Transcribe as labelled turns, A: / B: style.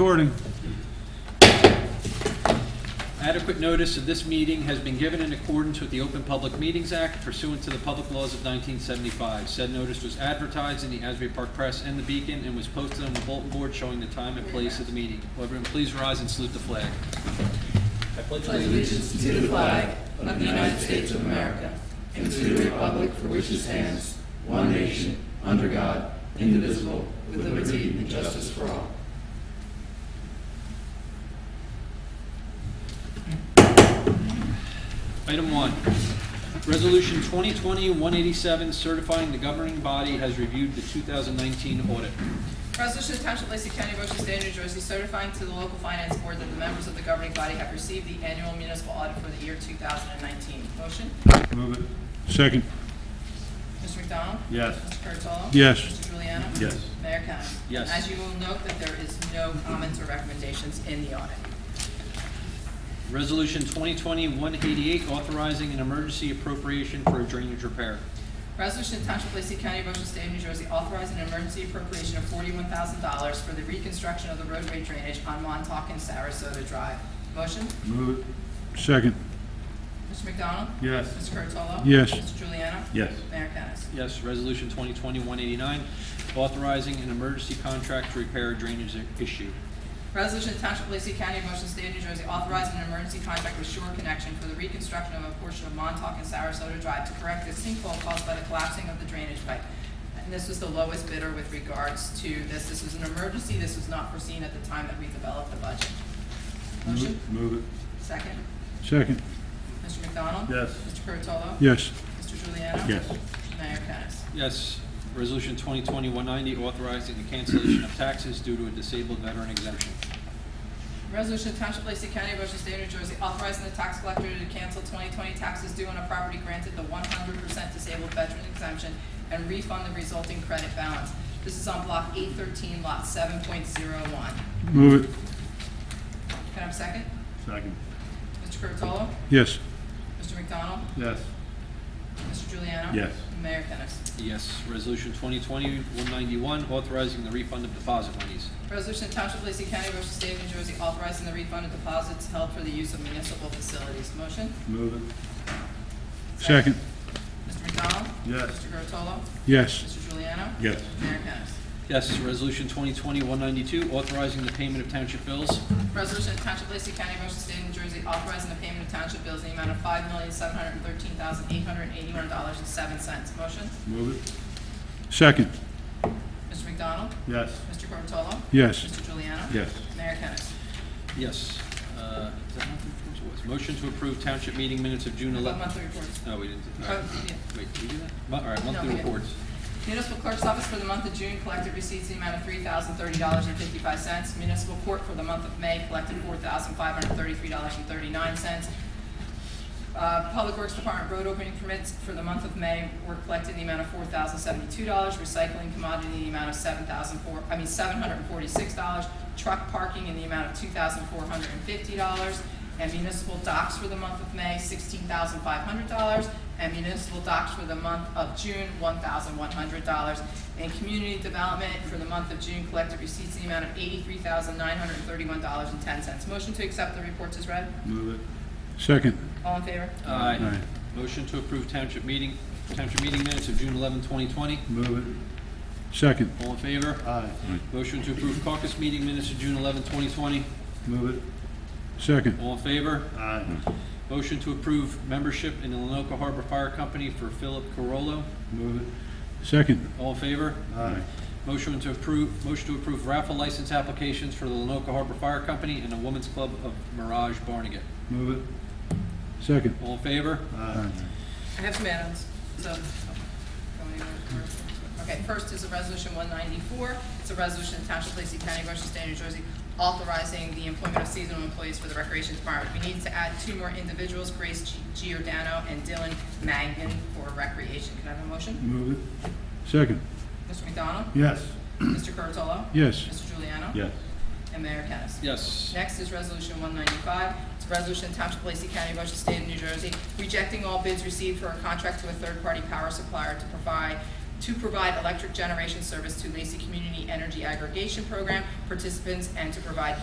A: Recording.
B: Adequate notice of this meeting has been given in accordance with the Open Public Meetings Act pursuant to the public laws of 1975. Said notice was advertised in the Asbury Park Press and the Beacon and was posted on the bulletin board showing the time and place of the meeting. Will everyone please rise and salute the flag? I pledge allegiance Item one, Resolution 2020-187 certifying the governing body has reviewed the 2019 audit.
C: Resolution to Township of Lacey County, Ocean State, New Jersey, certifying to the local finance board that the members of the governing body have received the annual municipal audit for the year 2019. Motion,
A: Move it. Second.
C: Mr. McDonald?
A: Yes.
C: Mr. Curatolo?
A: Yes.
C: Mr. Juliano?
A: Yes.
C: Mayor Kennas?
B: Yes.
C: As you will note that there is no comments or recommendations in the audit.
B: Resolution 2020-188 authorizing an emergency appropriation for a drainage repair.
C: Resolution to Township of Lacey County, Ocean State, New Jersey, authorizing an emergency appropriation of forty-one thousand dollars for the reconstruction of the roadway drainage on Montauk and Sarasota Drive. Motion,
A: Move it. Second.
C: Mr. McDonald?
A: Yes.
C: Mr. Curatolo?
A: Yes.
C: Mr. Juliano?
A: Yes.
C: Mayor Kennas?
B: Yes, Resolution 2020-189, authorizing an emergency contract to repair a drainage issue.
C: Resolution to Township of Lacey County, Motion State of New Jersey, authorizing an emergency contract with Shore Connection for the reconstruction of a portion of Montauk and Sarasota Drive to correct a sinkhole caused by the collapsing of the drainage pipe. And this was the lowest bidder with regards to this. This was an emergency. This was not foreseen at the time that we developed the budget. Motion,
A: Move it.
C: second.
A: Second.
C: Mr. McDonald?
A: Yes.
C: Mr. Curatolo?
A: Yes.
C: Mr. Juliano?
A: Yes.
C: Mayor Kennas?
B: Yes, Resolution 2020-190, authorizing the cancellation of taxes due to a disabled veteran exemption.
C: Resolution to Township of Lacey County, Ocean State, New Jersey, authorizing the tax collector to cancel 2020 taxes due on a property granted the 100% disabled veteran exemption and refund the resulting credit balance. This is on Block 813, Lot 7.01. Can
A: Move it.
C: I have a second?
A: Second.
C: Mr. Curatolo?
A: Yes.
C: Mr. McDonald?
A: Yes.
C: Mr. Juliano?
A: Yes.
C: Mayor Kennas?
B: Yes, Resolution 2020-191, authorizing the refund of deposit monies.
C: Resolution to Township of Lacey County, Ocean State, New Jersey, authorizing the refund of deposits held for the use of municipal facilities. Motion?
A: Move it. Second.
C: Mr. McDonald?
A: Yes.
C: Mr. Curatolo?
A: Yes.
C: Mr. Juliano?
A: Yes.
C: Mayor Kennas?
B: Yes, Resolution 2020-192, authorizing the payment of township bills.
C: Resolution of Township of Lacey County, Ocean State, New Jersey, authorizing the payment of township bills in the amount of five million, seven hundred and thirteen thousand, eight hundred and eighty-one dollars and seven cents. Motion,
A: Move it. Second.
C: Mr. McDonald?
A: Yes.
C: Mr. Curatolo?
A: Yes.
C: Mr. Juliano?
A: Yes.
C: Mayor Kennas?
B: Yes. uh, is that monthly reports or what? Motion to approve township meeting minutes of June
C: How about
B: 11th.
C: Monthly reports.
B: No, we didn't. do- all right.
C: Oh, yeah.
B: Wait, did we do that? Mo- All right,
C: No, we
B: monthly
C: didn't.
B: reports.
C: Municipal Clerk's Office for the month of June collected receipts in the amount of three thousand, thirty dollars and fifty-five cents. Municipal Court for the month of May collected four thousand, five hundred and thirty-three dollars and thirty-nine cents. Uh, Public Works Department road opening permits for the month of May were collected in the amount of four thousand seventy-two dollars, recycling commodity in the amount of seven thousand four, I mean, seven hundred and forty-six dollars, truck parking in the amount of two thousand four hundred and fifty dollars, and municipal docks for the month of May, sixteen thousand five hundred dollars, and municipal docks for the month of June, one thousand one hundred dollars. And community development for the month of June collected receipts in the amount of eighty-three thousand nine hundred and thirty-one dollars and ten cents. Motion to accept the reports is read.
A: Move it. Second.
C: All in favor?
B: Aye.
A: Aye.
B: Motion to approve township meeting, township meeting minutes of June 11th, 2020.
A: Move it. Second.
B: All in favor?
A: Aye.
B: Motion to approve caucus meeting minutes of June 11, 2020.
A: Move it. Second.
B: All in favor?
A: Aye.
B: Motion to approve membership in the Lenoka Harbor Fire Company for Philip Carollo.
A: Move it. Second.
B: All in favor?
A: Aye.
B: Motion to approve, motion to approve raffle license applications for the Lenoka Harbor Fire Company and the Women's Club of Mirage Barnegat.
A: Move it. Second.
B: All in favor?
A: Aye.
C: I have some add-ons, so. oh, Okay, first is a resolution one ninety-four. It's a resolution of Township of Lacey County, Ocean State, New Jersey, authorizing the employment of seasonal employees for the Recreation Department. We need to add two more individuals, Grace G- Giordano and Dylan Mangan for Recreation. Can I have a motion?
A: Move it. Second.
C: Mr. McDonald?
A: Yes.
C: Mr. Curatolo?
A: Yes.
C: Mr. Juliano? And Mayor Kennas?
B: Yes.
C: Next is Resolution 195. It's a resolution Township of Lacey County, Ocean State of New Jersey, rejecting all bids received for a contract to a third-party power supplier to provide to provide electric generation service to Lacey Community Energy Aggregation Program participants and to provide